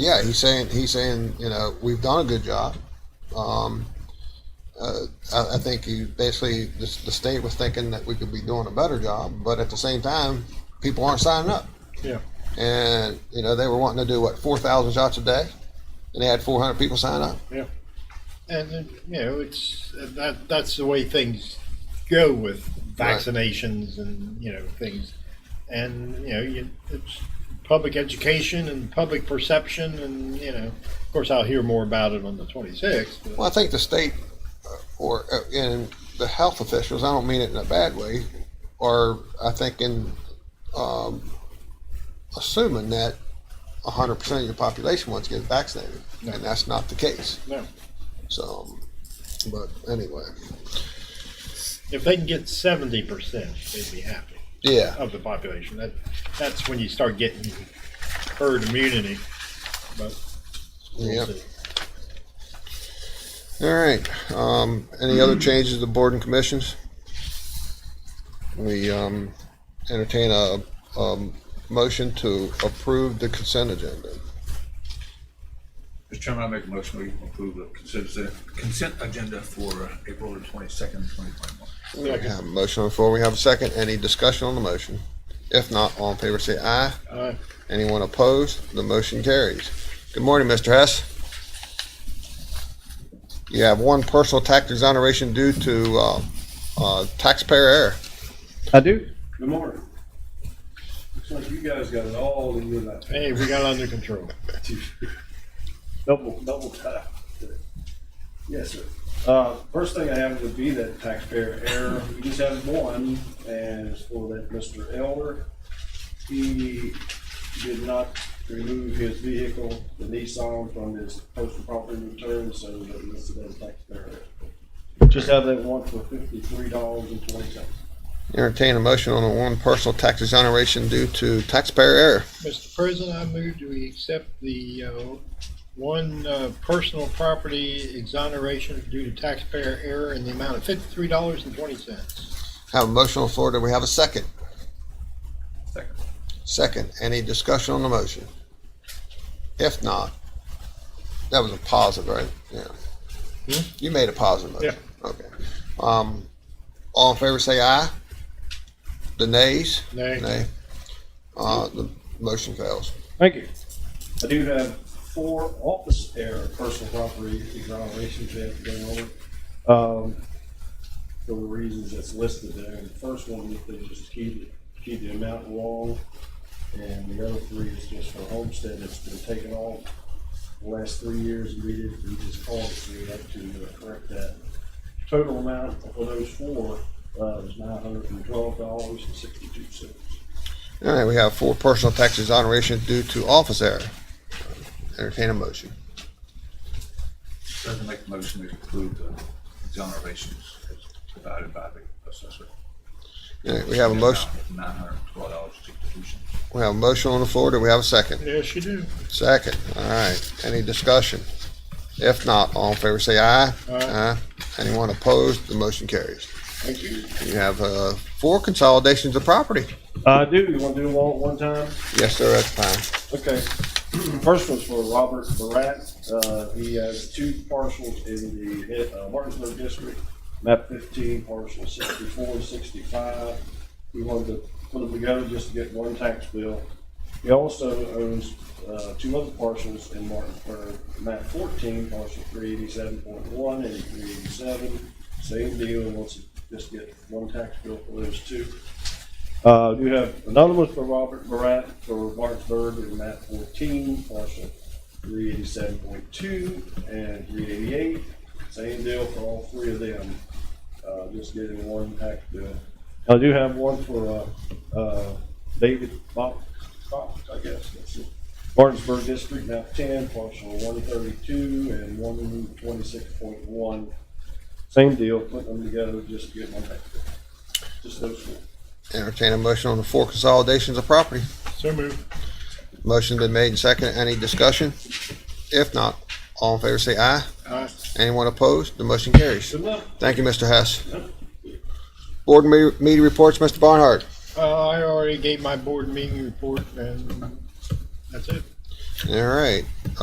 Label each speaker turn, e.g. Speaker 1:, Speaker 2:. Speaker 1: yeah, he's saying he's saying you know we've done a good job. Um, uh, I, I think he basically the, the state was thinking that we could be doing a better job, but at the same time, people aren't signing up,
Speaker 2: Yeah.
Speaker 1: and you know they were wanting to do what four thousand shots a day, and they had four hundred people sign up.
Speaker 2: Yeah. And, uh, you know, it's, uh, that, that's the way things go with
Speaker 1: Right.
Speaker 2: vaccinations and, you know, things. And, you know, you, it's public education and public perception and, you know, of course, I'll hear more about it on the 26th. but-
Speaker 1: Well, I think the state uh, or uh, and the health officials, I don't mean it in a bad way, are, I think, in um, assuming that 100% of your population wants to get vaccinated, and that's not the case.
Speaker 2: No.
Speaker 1: So, but anyway,
Speaker 2: If they can get 70%, they'd be happy
Speaker 1: yeah,
Speaker 2: of the population. That, that's when you start getting herd immunity. But we'll
Speaker 1: Yep.
Speaker 2: see.
Speaker 1: all right. Um, any other changes to board and commissions? We um, entertain a, um motion to approve the consent agenda.
Speaker 3: Mr. Chairman, I make a motion we approve the consent, consent agenda for uh, April the twenty-second, twenty twenty-one.
Speaker 1: We have a motion on the floor. We have a second. Any discussion on the motion? If not, all in favor say aye.
Speaker 2: All right.
Speaker 1: Anyone opposed? The motion carries. Good morning, Mr. Hess. You have one personal tax exoneration due to uh, uh, taxpayer error.
Speaker 4: I do.
Speaker 5: Good morning. Looks like you guys got it all in your lap.
Speaker 2: Hey, we got it under control.
Speaker 5: Double, double time. Yes, sir. Uh, first thing I have would be that taxpayer error. We just have one, and it's for that Mr. Elder. He did not remove his vehicle, the Nissan, from his postal property return, so that listed as taxpayer error. Just have that one for fifty-three dollars and twenty cents.
Speaker 1: Entertain a motion on the one personal tax exoneration due to taxpayer error.
Speaker 2: Mr. President, I move that we accept the uh, one uh, personal property exoneration due to taxpayer error in the amount of fifty-three dollars and twenty cents.
Speaker 1: Have a motion on the floor. Do we have a second?
Speaker 3: Second.
Speaker 1: Second, any discussion on the motion? If not, that was a positive, right? Yeah.
Speaker 2: Hmm?
Speaker 1: You made a positive motion. Okay. Um, all in favor, say aye. The nays?
Speaker 2: Nay.
Speaker 1: Nay. Uh, the motion fails.
Speaker 4: Thank you.
Speaker 5: I do have four office error personal property exonerations that have to go over
Speaker 4: Um,
Speaker 5: for the reasons that's listed there. And the first one, they just keyed, keyed the amount wrong. And the other three is just for homestead that's been taken off the last three years. We did, we just called it, so we had to uh, correct that. Total amount for those four, uh, is nine hundred and twelve dollars and sixty-two cents.
Speaker 1: All right, we have four personal tax exoneration due to office error. Entertain a motion.
Speaker 3: President, make a motion we approve the exonerations as provided by the assessor.
Speaker 1: All right, we have a motion,
Speaker 3: Nine hundred and twelve dollars sixty-two cents.
Speaker 1: we have a motion on the floor. Do we have a second?
Speaker 2: Yes, you do.
Speaker 1: Second, all right. Any discussion? If not, all in favor say aye.
Speaker 2: Aye.
Speaker 1: Anyone opposed? The motion carries.
Speaker 5: Thank you.
Speaker 1: You have uh, four consolidations of property.
Speaker 4: I do.
Speaker 5: You wanna do them all at one time?
Speaker 1: Yes, sir, that's fine.
Speaker 5: Okay, first one's for Robert Barat. Uh, he has two parcels in the uh, Martinsburg district, map fifteen, parcel sixty-four and sixty-five. We wanted to put them together just to get one tax bill. He also owns, uh, two other parcels in Martinsburg, map fourteen, parcel three eighty-seven point one and three eighty-seven. Same deal, wants to just get one tax bill for those two. Uh, you have anonymous for Robert Barat for Martinsburg in map fourteen, parcel three eighty-seven point two and three eighty-eight. Same deal for all three of them, uh, just getting one tax bill. I do have one for, uh, uh, David Fox, Fox, I guess, that's it. Martinsburg District, map ten, parcel one thirty-two and one twenty-six point one. Same deal, putting them together just to get one tax bill, just those four.
Speaker 1: Entertain a motion on the four consolidations of property.
Speaker 2: So moved.
Speaker 1: Motion been made and seconded. Any discussion? If not, all in favor say aye.
Speaker 2: Aye.
Speaker 1: Anyone opposed? The motion carries.
Speaker 5: Good luck.
Speaker 1: Thank you, Mr. Hess. Board me- meeting reports, Mr. Barnhart.
Speaker 2: Uh, I already gave my board meeting report and that's it.
Speaker 1: All right.